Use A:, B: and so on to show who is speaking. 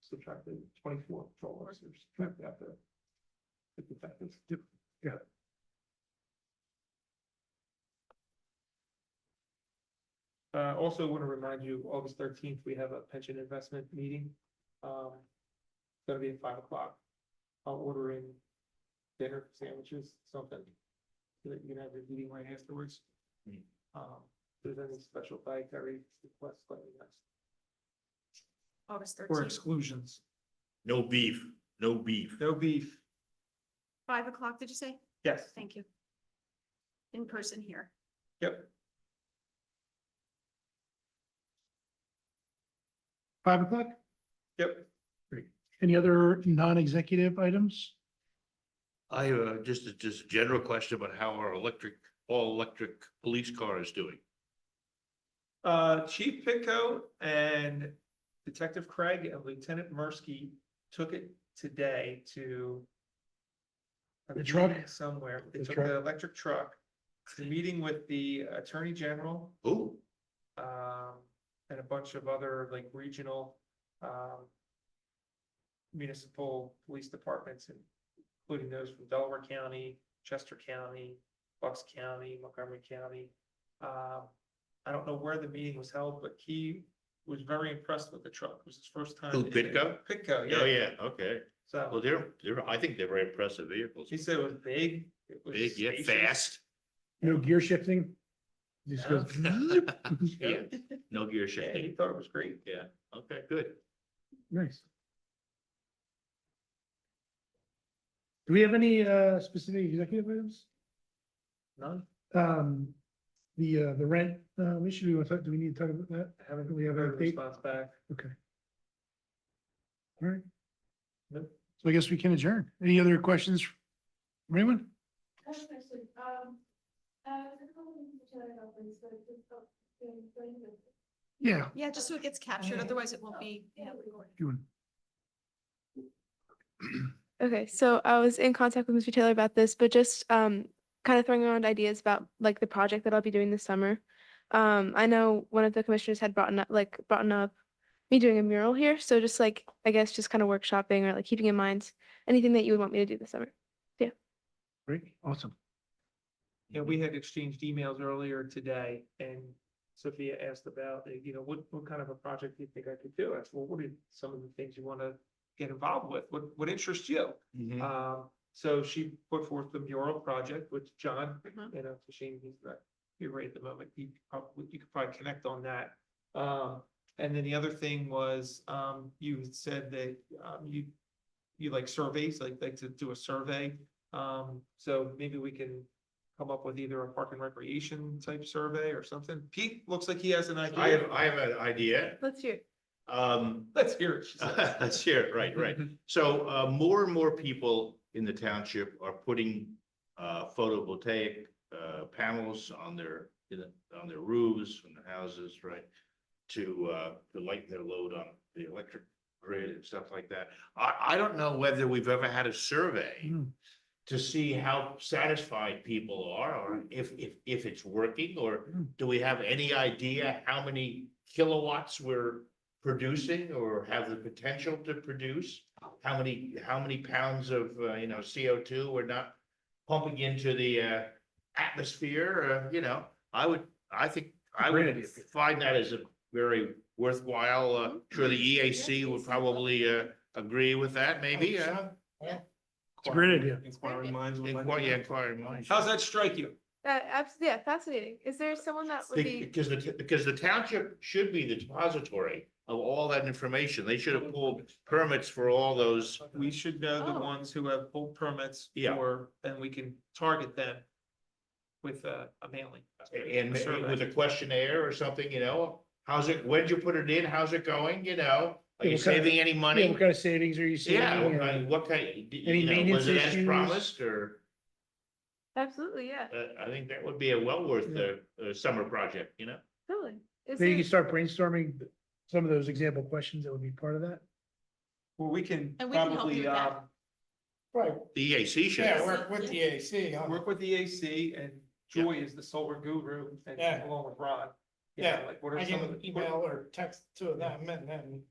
A: subtract the twenty-four patrol officers, subtract that there. Fifty seconds. Uh, also want to remind you, August thirteenth, we have a pension investment meeting. Um, it's gonna be at five o'clock. I'm ordering dinner, sandwiches, something. So that you can have your meeting right afterwards.
B: Hmm.
A: Um, if there's any special dietary requests, let me know.
C: August
A: Or
C: thirteenth,
A: exclusions,
B: No beef, no beef.
A: no beef,
C: five o'clock, did you say?
A: yes,
C: Thank you. In person here.
A: yep.
D: Five o'clock?
A: Yep.
D: Any other non-executive items?
B: I have a- just, a- just a general question about how our electric, all electric police car is doing.
A: Uh, Chief Pitko and Detective Craig and Lieutenant Mursky took it today to. a
D: The truck?
A: meeting Somewhere. They
D: The
A: took
D: truck?
A: the electric truck. It's a meeting with the Attorney General,
B: Oh,
A: um, and a bunch of other like regional, um. Municipal police departments, including those from Delaware County, Chester County, Bucks County, Montgomery County. Um, I don't know where the meeting was held, but he was very impressed with the truck. It was his first time.
B: Who, Pitco?
A: Pitco,
B: oh,
A: Uh, yeah.
B: yeah, okay. Well,
A: So
B: they're, they're, I think they're very impressive vehicles.
A: he said it was big. it was
B: Big, yet
A: spacious.
B: fast.
D: No gear shifting? Just goes zip.
B: Yeah, no gear
A: Yeah, he
B: shifting.
A: thought it was great.
B: Yeah, okay, good.
D: Nice. Do we have any uh specific executive items?
A: None,
D: Um, the uh, the rent, uh, issue, we want to, talk- do we need to talk about that?
A: I haven't
D: We have
A: heard a
D: an update?
A: response back.
D: Okay. All right.
A: Nope.
D: So I guess we can adjourn. Any other questions? from Anyone?
E: Actually, um, uh, I don't know if you it open, so just, uh, doing, doing this.
D: Yeah.
C: Yeah, just so it gets captured, otherwise it won't be, you know, recorded.
D: you want-
F: Okay, so I was in contact with Mr. Taylor about this, but just um kind of throwing around ideas about like the project that I'll be doing this summer. Um, I know one of the commissioners had brought up like brought up me doing a mural here, so just like I guess just kind of workshopping or like keeping in mind anything that you would want me to do this summer.
D: Great, awesome.
A: And we had exchanged emails earlier today and Sophia asked about, uh, you know, what, what kind of a project do you think I could do? I said, well, what are some of the things you want to get involved with? What, what interests you?
B: Mhm.
A: Um, so she put forth the mural project, which John,
C: Mhm.
A: you know, it's a shame he's not here right at the moment. You could probably, you could probably connect on that. Um, and then the other thing was, um, you had said that, um, you, you like surveys, like, like to do a survey. Um, so maybe we can come up with either a park and recreation type survey or something. Pete looks like he has an
B: I have,
A: idea.
B: I have an idea.
F: Let's hear.
B: Um,
A: Let's hear it. she said. Mm-hmm.
B: That's here, right, right. So uh, more and more people in the township are putting uh, photovoltaic uh, panels on their, in the- on their roofs and the houses, right? To uh, to lighten their load on the electric grid and stuff like that. I, I don't know whether we've ever had a survey
D: Hmm.
B: to see how satisfied people are
A: Hmm.
B: or if, if, if it's working or do we have any idea how many kilowatts we're producing or have the potential to produce? How many, how many pounds of, uh, you know, CO2 we're not pumping into the uh, atmosphere, uh, you know? I would, I think, I
D: Great idea.
B: would find that as a very worthwhile, uh,
A: Hmm.
B: sure, the EAC
A: E
B: would probably uh, agree with that, maybe, uh,
D: It's a great idea.
A: Inquiring minds. would like to
B: inquire, yeah,
A: know.
B: inquire minds.
A: How's that strike you?
F: That absolutely, yeah, fascinating. Is there someone that would
B: The-
F: be?
B: Because the, t- because the township should be the depository of all that information. They should have pulled permits for all those.
A: We should know the
F: Oh.
A: ones who have full permits
B: Yeah.
A: for, and we can target them with a, a mailing.
B: And
A: A survey.
B: with a questionnaire or something, you know, how's it, when'd you put it in? How's it going? You know, are you
D: Yeah, what kind of-
B: saving any
D: Yeah,
B: money?
D: What kind of savings are you seeing?
B: Yeah, what
D: Uh,
B: kind, what kind,
D: Any
B: you know, was
D: maintenance
B: it as
D: issues?
B: promised or,
F: Absolutely, yeah,
B: uh, I think that would be a well worth
D: Yeah.
B: the, uh, summer project, you know?
F: totally. Is
D: Maybe you
F: there-
D: can start brainstorming some of those example questions that would be part of that.
A: Well, we can
C: And we can help
A: probably,
C: you with that.
A: um,
G: Right,
B: The EAC should.
G: yeah, work with the AC,
A: work with the AC and Joy is the solar guru and
G: Yeah.
A: along with Ron. You
G: Yeah,
A: know, Like what
G: I
A: are some
G: can
A: of the,
G: email or text to them and then